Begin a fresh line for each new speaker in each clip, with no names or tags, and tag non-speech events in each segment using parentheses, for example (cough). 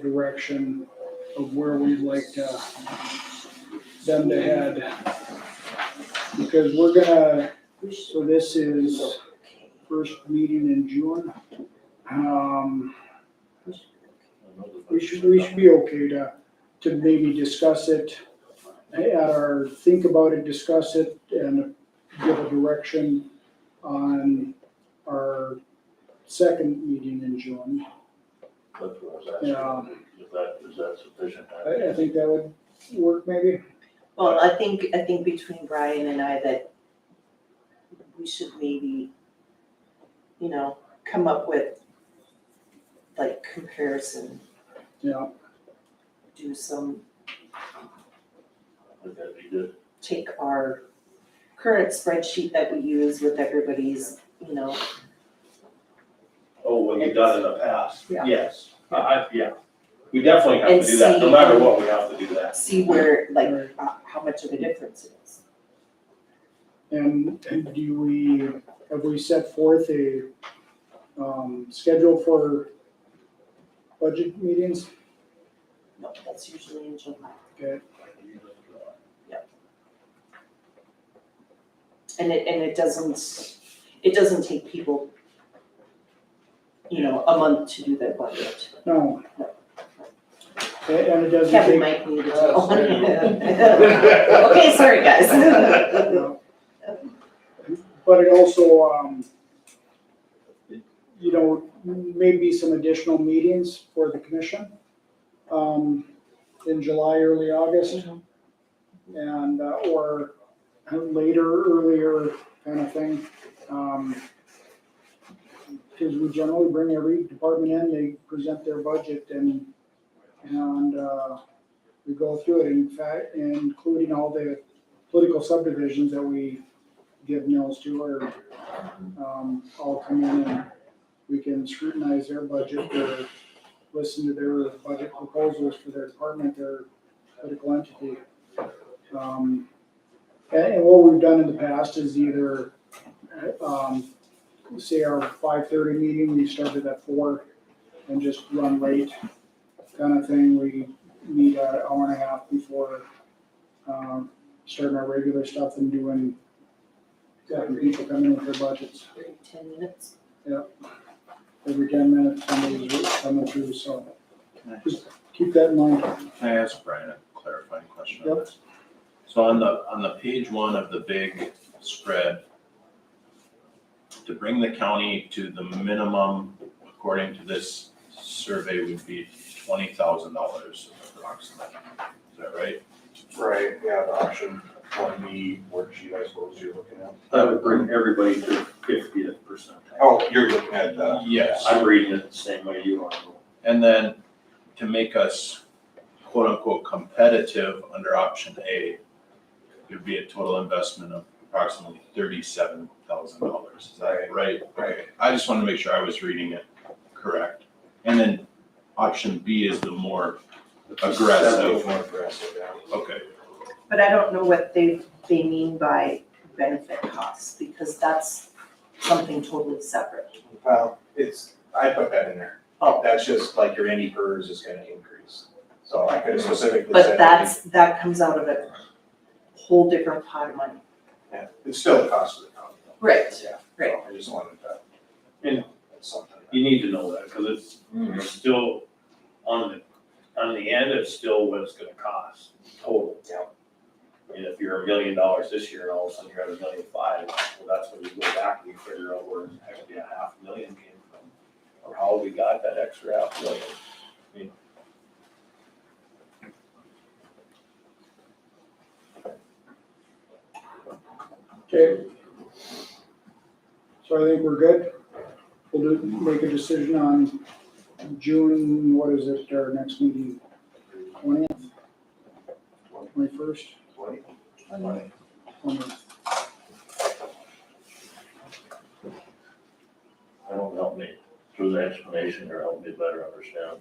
the direction of where we'd like to, them to head. Because we're gonna, so this is first meeting in June. Um, we should, we should be okay to, to maybe discuss it eh, at our, think about it, discuss it, and give a direction on our second meeting in June. Um,
That's what
Yeah.
I was asking. Is that, is that sufficient?
I, I think that would work maybe.
Well, I think, I think between Brian and I that we should maybe, you know, come up with like comparison,
Yeah,
do some,
Would that be good?
take our current spreadsheet that we use with everybody's, you know,
Oh, what you've done in the past,
Yeah.
yes, I, I, yeah, we definitely have
And
to do that, no
see-
matter what, we have to do
(laughs)
that.
see where, like,
Right.
uh, how much of a difference it is.
and and do we, have we set forth a, um, schedule for budget meetings?
No, that's usually in July.
Okay,
And it, and it doesn't, it doesn't take people, you know, a month to do their budget.
no. Okay, And it doesn't
Kevin
take,
might need to.
Oh,
(laughs) Okay, sorry, (laughs) guys.
no. But it also, um, you know, maybe some additional meetings for the commission, um, in July, early August. and, uh, or later, earlier kind of thing. Um, Cause we generally bring every department in, they present their budget and, and, uh, we go through it in fact, including all the political subdivisions that we give mills to or, um, all come in and we can scrutinize their budget or listen to their budget proposals for their department, their political entity. Um, And, and what we've done in the past is either, um, say our five thirty meeting, we started at four and just run late kind of thing. We meet an hour and a half before, um, starting our regular stuff and doing, having people come in with their budgets.
Ten minutes.
Every ten minutes, somebody's coming through, so just keep that in mind.
Can I ask Brian a clarifying question
Yep.
on this? So on the, on the page one of the big spread, to bring the county to the minimum, according to this survey, would be twenty thousand dollars approximately. Is that right?
Right, yeah, the option one B worksheet, I suppose you're looking at.
That would bring everybody to fiftieth percent.
Oh, you're looking at, uh,
Yes.
I'm reading it the same way you are.
And then to make us quote unquote competitive under option A, there'd be a total investment of approximately thirty-seven thousand dollars. Is that right?
Right.
I just wanted to make sure I was reading it correct. And then option B is the more, Aggressive.
More aggressive, yeah.
okay,
But I don't know what they, they mean by benefit costs, because that's something totally separate.
Well, it's, I put that in there.
Oh.
That's just like your any PERS is gonna increase. So I could have specifically said.
But that's, that comes out of a whole different pot of money.
Yeah, It's still the cost of the county. though.
Right,
Yeah.
right.
I just wanted that.
And-
That's something.
You need to know that, cause it's, it's still on the, on the end, it's still what it's gonna cost total.
Yeah.
And if you're a million dollars this year and all of a sudden you're at a million five, well, that's when you go back and you figure out where actually a half million came from. Or how we got that extra half million. I mean,
Okay. So I think we're good. We'll do, make a decision on June, what is it, our next meeting, twentieth? Twenty-first,
Twenty?
twentieth,
I don't help me through the explanation or help me better understand.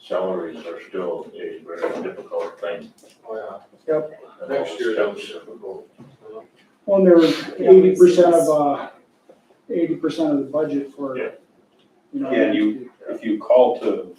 Salaries are still a very difficult thing.
yep.
Next year, that was difficult.
Well, and there was eighty percent of, uh, eighty percent of the budget for,
Yeah.
you know.
Yeah, and you- If you call to